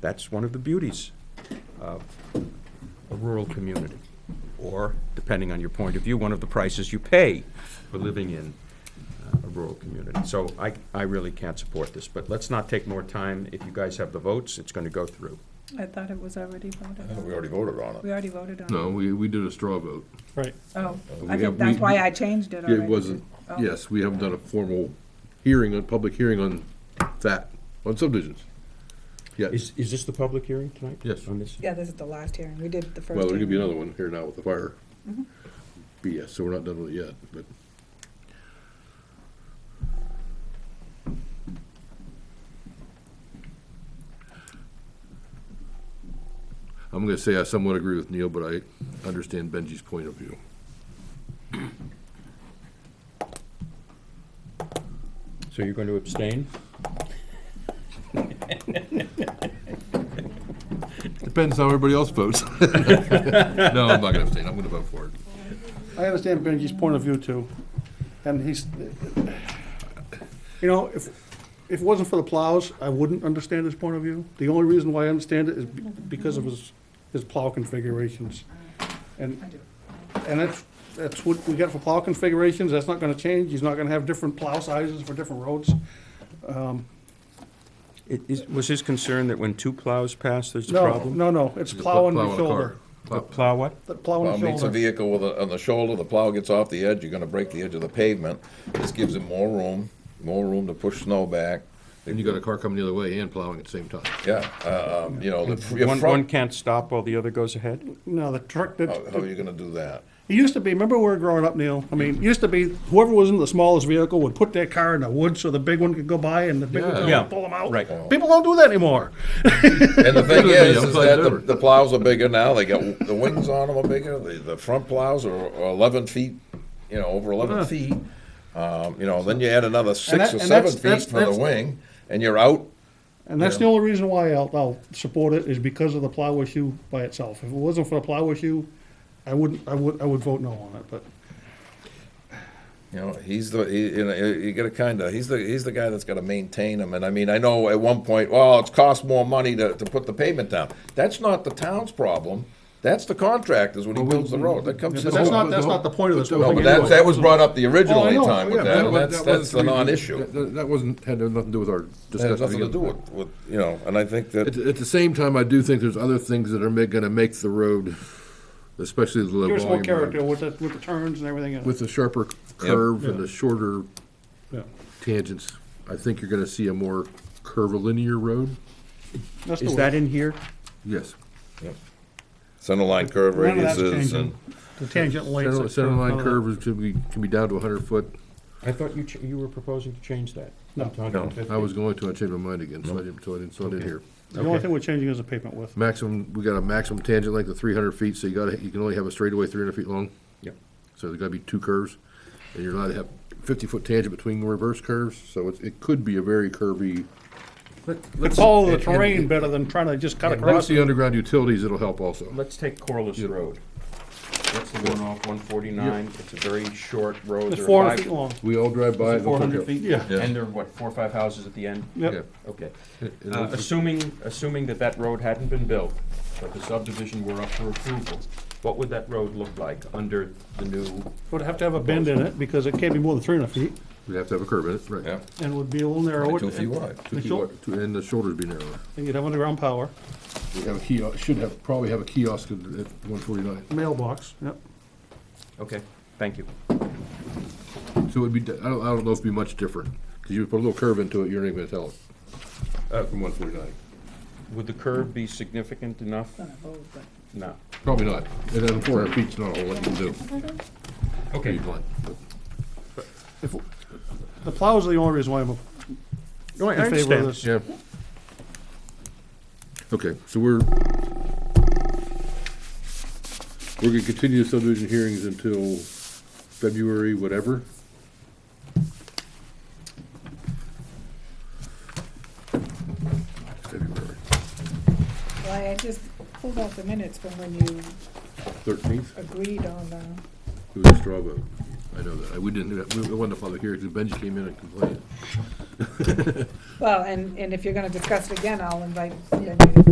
That's one of the beauties of a rural community, or, depending on your point of view, one of the prices you pay for living in uh, a rural community. So I, I really can't support this, but let's not take more time. If you guys have the votes, it's going to go through. I thought it was already voted on. We already voted on We it. already voted on it. No, Uh, we, we did a straw vote. Right. Oh, we I think have- that's we- why I changed it already. It wasn't, Oh. yes, we haven't done a formal hearing, a public hearing on that, on subdivisions. Yes, Is, is this the public hearing tonight? Yes. On this? Yeah, this is the last hearing. We did the first. well, there could be hearing. another one here now with the fire BS, so we're not done with it yet, but. I'm gonna say I somewhat agree with Neil, but I understand Benji's point of view. So you're going to abstain? Depends how everybody else votes. No, I'm not gonna abstain, I'm gonna vote for it. I understand Benji's point of view too, and he's, you know, if, if it wasn't for the plows, I wouldn't understand his point of view. The only reason why I understand it is be- because of his, his plow configurations. And, and that's, that's what we got for plow configurations, that's not gonna change, he's not gonna have different plow sizes for different roads. It is, was his concern that when two plows pass, there's a No, problem? no, no, it's Just plow and plow a shoulder, car. Plow. Plow what? The plow Plow and meets a shoulder. vehicle with a, on the shoulder, the plow gets off the edge, you're gonna break the edge of the pavement. This gives it more room, more room to push snow back. And you got a car coming the other way and plowing at the same time. Yeah, uh, um, you know, the, your One, one front, can't stop while the other goes ahead? No, the truck, the, how how are you gonna do that? It used to be, remember when we were growing up, Neil? I mean, it used to be whoever was in the smallest vehicle would put their car in the woods so the big one could go by and the big one Yeah. could pull them out. Right. People don't do that anymore. And the thing Yeah, is, I'm is glad that they the, were. the plows are bigger now, they got, the wings on them are bigger, the, the front plows are are eleven feet, you know, over eleven feet. Um, you know, then you add another six that- or seven and that's- feet that's- for the that's- wing, and you're out. And that's the only reason why I'll, I'll support it is because of the plow issue by itself. If it wasn't for the plow issue, I wouldn't, I would, I would vote no on it, but You know, he's the he, you know you got to kind of he's the he's the guy that's got to maintain them. And I mean, I know at one point, well, it's cost more money to, to put the pavement down. That's not the town's problem. That's the contractors when he builds the road. That comes. but to that's the not, home. that's not the point of this. No, No, whole but thing that, anyway. that was brought up the original Oh, I know. time with Yeah, that. that and was- That's that's the non-issue. That, that wasn't, had nothing to do with our That discussion. has nothing to do with, with you know. And I think that At, at the same time, I do think there's other things that are ma- gonna make the road, especially the low Give us more volume character road, with the, with the turns and everything in with it. the sharper curve and the shorter Yeah. tangents, I think you're gonna see a more curvilinear road. That's the Is way. that in here? Yes. center line curve None of that's radiuses and changing. The tangent lengths. Center, that's center line none of that. curve is, can be, can be down to a hundred foot. I thought you, ch- you were proposing to change that. No. I was going to, I changed my mind again, so I didn't, so I didn't, so I didn't hear. The only thing we're changing is the pavement width. Maximum, we got a maximum tangent length of three hundred feet, so you gotta, you can only have a straightaway three hundred feet long. Yep. So there's gotta be two curves, and you're allowed to have fifty-foot tangent between the reverse curves, so it's, it could be a very curvy. Could follow the and- and- terrain better than trying to just cut Once across. the underground utilities, it'll help also. Let's take Corliss Road. That's the one off one forty-nine. It's a very short road. It's There are four hundred five- feet long. We all drive by. Is it it looks Four hundred okay. feet? Yeah. Yeah. And there are what, four or five houses at the end? Yep. Yeah. Okay. It- it Uh, looks- Assuming, assuming that that road hadn't been built, but the subdivision were up for approval, what would that road look like under the new? Would have to have a bend in it, because it can't be more than three hundred feet, We'd have to have a curve in it, yeah, right. and it would be a little narrower. two feet wide. Two feet Sure. wide, two- And the shoulders be narrower. And you'd have underground power, We have a kiosk, should have, probably have a kiosk at one forty-nine. mailbox, yep. Okay, thank you. So it'd be, di- I don't, I don't know if it'd be much different, because you put a little curve into it, you're not even gonna tell it. Uh, From one forty-nine. Would the curve be significant enough? Oh, but- No. Probably not. And then four hundred feet's not a whole lot you can do. Okay, If- The plows are the only reason why I'm No, I in favor of understand. this. Yeah. Okay, so we're, we're gonna continue the subdivision hearings until February, whatever. February Well, I just pulled out the minutes from when you thirteenth, agreed on the, it was a straw vote. I know that. I, we didn't, do that. we, we wanted to follow here, because Benji came in and complained. well, and, and if you're gonna discuss it again, I'll invite, then you